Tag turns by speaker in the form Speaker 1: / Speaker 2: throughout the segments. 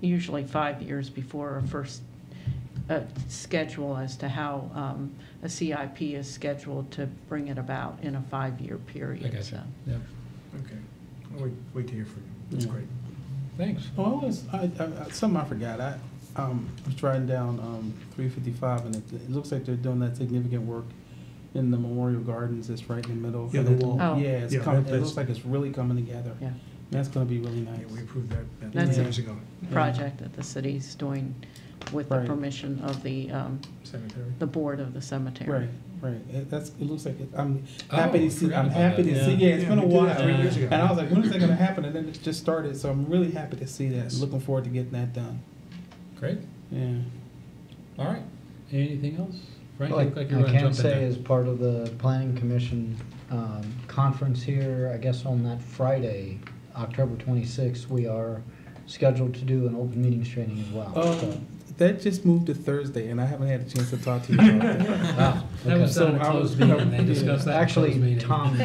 Speaker 1: usually five years before a first uh, schedule as to how um, a CIP is scheduled to bring it about in a five-year period.
Speaker 2: I got you.
Speaker 1: so.
Speaker 2: Yeah.
Speaker 3: Okay. I'll Wait, wait to hear from you. That's
Speaker 4: Yeah.
Speaker 3: great.
Speaker 2: Thanks.
Speaker 4: Oh, I was, I, I, I- something I forgot. I, um, I was writing down, um, three fifty-five and it, it looks like they're doing that significant work in the Memorial Gardens. It's right in the middle.
Speaker 3: Yeah, the wall.
Speaker 1: Oh.
Speaker 4: Yeah, it's
Speaker 3: Yeah,
Speaker 4: coming,
Speaker 3: that-
Speaker 4: it looks
Speaker 3: that's-
Speaker 4: like it's really coming together.
Speaker 1: Yeah,
Speaker 4: That's gonna be really
Speaker 3: Yeah, we
Speaker 4: nice.
Speaker 3: approved that, that
Speaker 1: That's
Speaker 3: years ago.
Speaker 1: project that the city's doing with the
Speaker 4: Right.
Speaker 1: permission of the, um,
Speaker 3: Cemetery.
Speaker 1: the board of the cemetery.
Speaker 4: Right, right. It, that's, it looks like, it I'm happy
Speaker 2: Oh, I
Speaker 4: to see,
Speaker 2: forgot
Speaker 4: I'm
Speaker 2: about
Speaker 4: happy
Speaker 2: that.
Speaker 4: to see, yeah, it's
Speaker 3: Yeah,
Speaker 4: been a
Speaker 3: we did that
Speaker 4: while.
Speaker 2: three years
Speaker 3: ago.
Speaker 4: And I was like, when is that gonna happen? And then it just started, so I'm really happy to see that. Looking forward to getting that done.
Speaker 2: Great.
Speaker 4: Yeah.
Speaker 2: All right. Anything else? Frank, you look
Speaker 5: Like
Speaker 2: like you
Speaker 5: I
Speaker 2: want to
Speaker 5: can
Speaker 2: jump in
Speaker 5: say
Speaker 2: there.
Speaker 5: as part of the planning commission um, conference here, I guess on that Friday, October 26th, we are scheduled to do an open meetings training as well.
Speaker 2: Oh,
Speaker 5: so-
Speaker 4: Um, that just moved to Thursday and I haven't had a chance to talk to you about it.
Speaker 3: Ah.
Speaker 5: Wow,
Speaker 2: That was
Speaker 5: okay.
Speaker 2: done in a
Speaker 4: So I
Speaker 2: closed
Speaker 4: was-
Speaker 2: meeting. They
Speaker 4: yeah.
Speaker 2: discussed that in a closed
Speaker 5: Actually,
Speaker 2: meeting.
Speaker 5: Tom,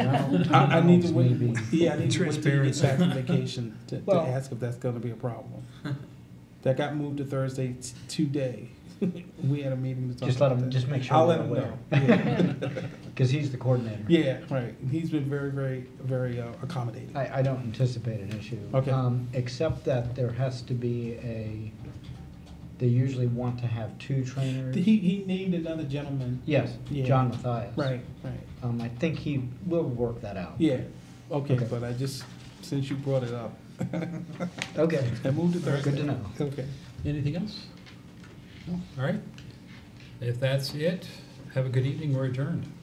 Speaker 4: I, I need to wait,
Speaker 5: maybe.
Speaker 4: yeah, I need to wait till you get
Speaker 3: Transparency.
Speaker 4: back from vacation to, to
Speaker 5: Well-
Speaker 4: ask if that's gonna be a problem. That got moved to Thursday t- today. We had a meeting to talk
Speaker 5: Just let
Speaker 4: about
Speaker 5: him,
Speaker 4: that.
Speaker 5: just make sure.
Speaker 4: I'll
Speaker 5: we're
Speaker 4: let him
Speaker 5: aware.
Speaker 4: know. Yeah.
Speaker 5: Because he's the coordinator.
Speaker 4: Yeah, right. He's been very, very, very uh, accommodating.
Speaker 5: I, I don't anticipate an issue.
Speaker 4: Okay.
Speaker 5: Um, Except that there has to be a, they usually want to have two trainers.
Speaker 4: He, he named another gentleman.
Speaker 5: Yes,
Speaker 4: Yeah.
Speaker 5: John Matthias.
Speaker 4: Right, right.
Speaker 5: Um, I think he will work that out.
Speaker 4: Yeah, okay,
Speaker 5: Okay.
Speaker 4: but I just, since you brought it up,
Speaker 5: Okay.
Speaker 4: I moved to Thursday.
Speaker 5: Good to know.
Speaker 4: Okay.
Speaker 2: Anything else? No. All right. If that's it, have a good evening. We're adjourned.